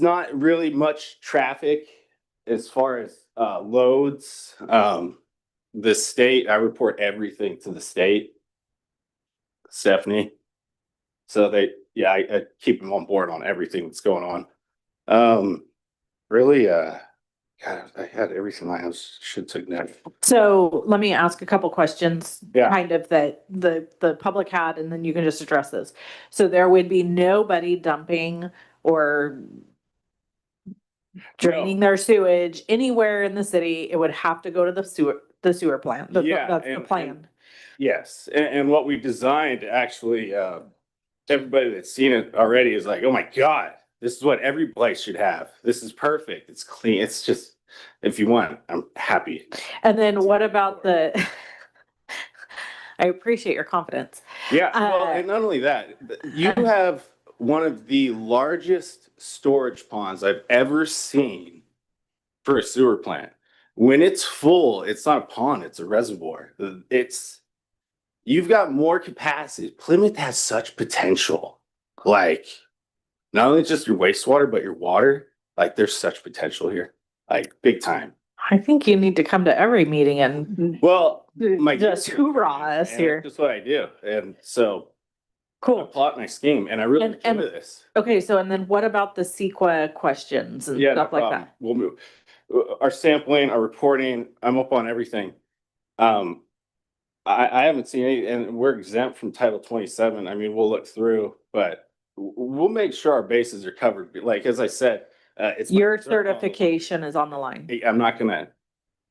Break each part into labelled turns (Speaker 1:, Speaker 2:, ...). Speaker 1: not really much traffic as far as uh loads. Um, the state, I report everything to the state. Stephanie. So they, yeah, I, I keep them on board on everything that's going on. Um, really, uh, God, I had everything I was, should take note.
Speaker 2: So let me ask a couple questions.
Speaker 1: Yeah.
Speaker 2: Kind of that the, the public had, and then you can just address this. So there would be nobody dumping or draining their sewage anywhere in the city. It would have to go to the sewer, the sewer plant. That's,
Speaker 1: Yeah,
Speaker 2: that's the
Speaker 1: and-
Speaker 2: plan.
Speaker 1: Yes, and, and what we've designed, actually, uh, everybody that's seen it already is like, oh my God, this is what every place should have. This is perfect. It's clean. It's just, if you want, I'm happy.
Speaker 2: And then what about the, I appreciate your confidence.
Speaker 1: Yeah, well,
Speaker 2: Uh,
Speaker 1: and not only that, but you
Speaker 2: uh,
Speaker 1: have one of the largest storage ponds I've ever seen for a sewer plant. When it's full, it's not a pond, it's a reservoir. It's, you've got more capacity. Plymouth has such potential. Like, not only just your wastewater, but your water. Like, there's such potential here, like, big time.
Speaker 2: I think you need to come to every meeting and
Speaker 1: Well, my.
Speaker 2: just hoorah us
Speaker 1: And
Speaker 2: here.
Speaker 1: That's what I do. And so I
Speaker 2: Cool.
Speaker 1: plot my scheme and I really
Speaker 2: And-
Speaker 1: enjoy
Speaker 2: and-
Speaker 1: this.
Speaker 2: Okay, so and then what about the CEQA questions and
Speaker 1: Yeah, no
Speaker 2: stuff like
Speaker 1: problem.
Speaker 2: that?
Speaker 1: We'll move. Uh, Our sampling, our reporting, I'm up on everything. Um, I, I haven't seen any, and we're exempt from Title twenty-seven. I mean, we'll look through, but w- we'll make sure our bases are covered. But Like, as I said, uh, it's. my
Speaker 2: Your
Speaker 1: concern on the-
Speaker 2: certification is on the line.
Speaker 1: Hey, I'm not gonna.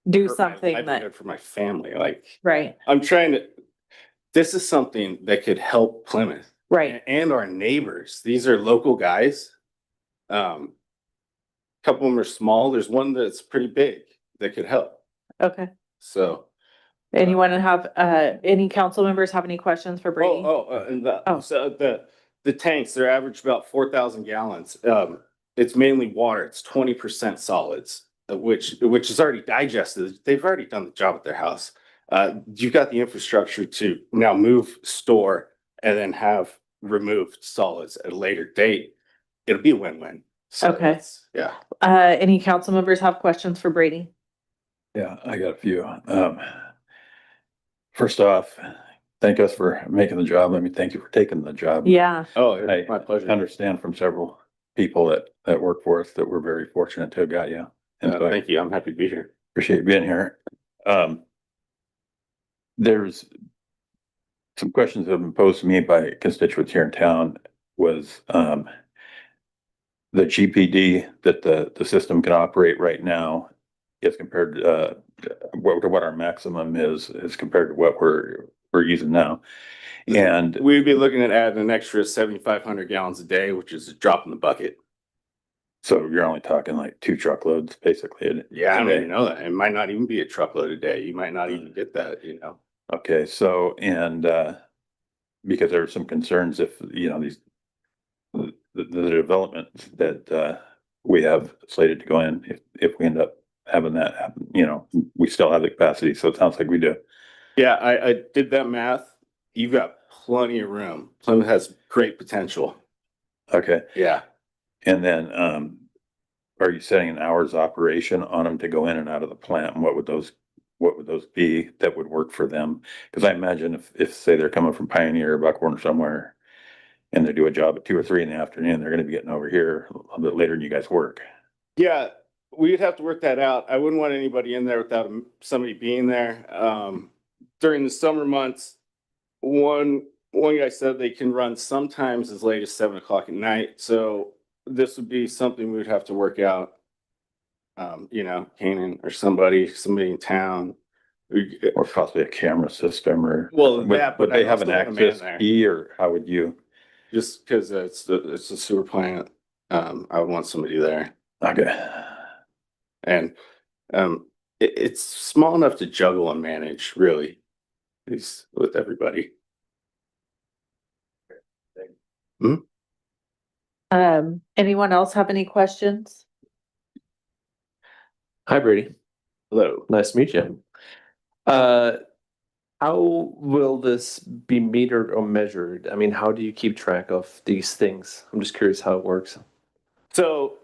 Speaker 2: Do
Speaker 1: hurt my
Speaker 2: something that,
Speaker 1: livelihood For my family, like,
Speaker 2: right,
Speaker 1: I'm trying to, this is something that could help Plymouth.
Speaker 2: right.
Speaker 1: a- and our neighbors. These are local guys. Um, couple of them are small. There's one that's pretty big that could help.
Speaker 2: Okay.
Speaker 1: So,
Speaker 2: Anyone have, uh, any council members have any questions for
Speaker 1: oh,
Speaker 2: Brady?
Speaker 1: oh, uh, and the,
Speaker 2: Oh.
Speaker 1: so the, the tanks, they're average about four thousand gallons. Um, it's mainly water. It's twenty percent solids, uh, which, which is already digested. They've already done the job at their house. Uh, you've got the infrastructure to now move, store, and then have removed solids at a later date. It'll be a win-win. So
Speaker 2: Okay.
Speaker 1: it's- Yeah.
Speaker 2: Uh, any council members have questions for Brady?
Speaker 3: Yeah, I got a few. Um, first off, thank us for making the job. I mean, thank you for taking the job.
Speaker 2: Yeah,
Speaker 1: Oh,
Speaker 3: Hey,
Speaker 1: it's my
Speaker 3: I
Speaker 1: pleasure.
Speaker 3: understand from several people that, that work for us that we're very fortunate to have got you. And
Speaker 1: Uh,
Speaker 3: so I
Speaker 1: Thank you. I'm happy to be here.
Speaker 3: appreciate you being here. Um, there's some questions that have been posed to me by constituents here in town was, um, the GPD that the, the system can operate right now is compared to, uh, what, to what our maximum is, is compared to what we're, we're using now. And
Speaker 1: We'd be looking at adding an extra seventy-five hundred gallons a day, which is a drop in the bucket.
Speaker 3: so you're only talking like two truckloads basically.
Speaker 1: Yeah, I don't
Speaker 3: Okay.
Speaker 1: even know that. It might not even be a truckload a day. You might not even get that, you know?
Speaker 3: Okay, so, and, uh, because there are some concerns if, you know, these, the, the development that, uh, we have slated to go in, if, if we end up having that happen, you know, we still have the capacity, so it sounds like we do.
Speaker 1: Yeah, I, I did that math. You've got plenty of room. Plymouth has great potential.
Speaker 3: Okay,
Speaker 1: Yeah.
Speaker 3: and then, um, are you setting an hours operation on them to go in and out of the plant? And what would those, what would those be that would work for them? Because I imagine if, if, say, they're coming from Pioneer, or Buckhorn or somewhere, and they do a job at two or three in the afternoon, they're gonna be getting over here a little bit later than you guys work.
Speaker 1: Yeah, we'd have to work that out. I wouldn't want anybody in there without m- somebody being there. Um, during the summer months, one, one guy said they can run sometimes as late as seven o'clock at night, so this would be something we would have to work out. Um, you know, Canaan or somebody, somebody in town. We-
Speaker 3: Or possibly a camera system or.
Speaker 1: Well,
Speaker 3: Would,
Speaker 1: that,
Speaker 3: would
Speaker 1: but
Speaker 3: they
Speaker 1: I
Speaker 3: have an
Speaker 1: also want a man
Speaker 3: access
Speaker 1: there.
Speaker 3: key or how would you?
Speaker 1: Just because it's, the- it's a sewer plant, um, I would want somebody there.
Speaker 3: Okay.
Speaker 1: And um, it, it's small enough to juggle and manage, really, at least with everybody.
Speaker 2: um, anyone else have any questions?
Speaker 4: Hi Brady,
Speaker 1: Hello.
Speaker 4: nice to meet you. Uh, how will this be metered or measured? I mean, how do you keep track of these things? I'm just curious how it works.
Speaker 1: So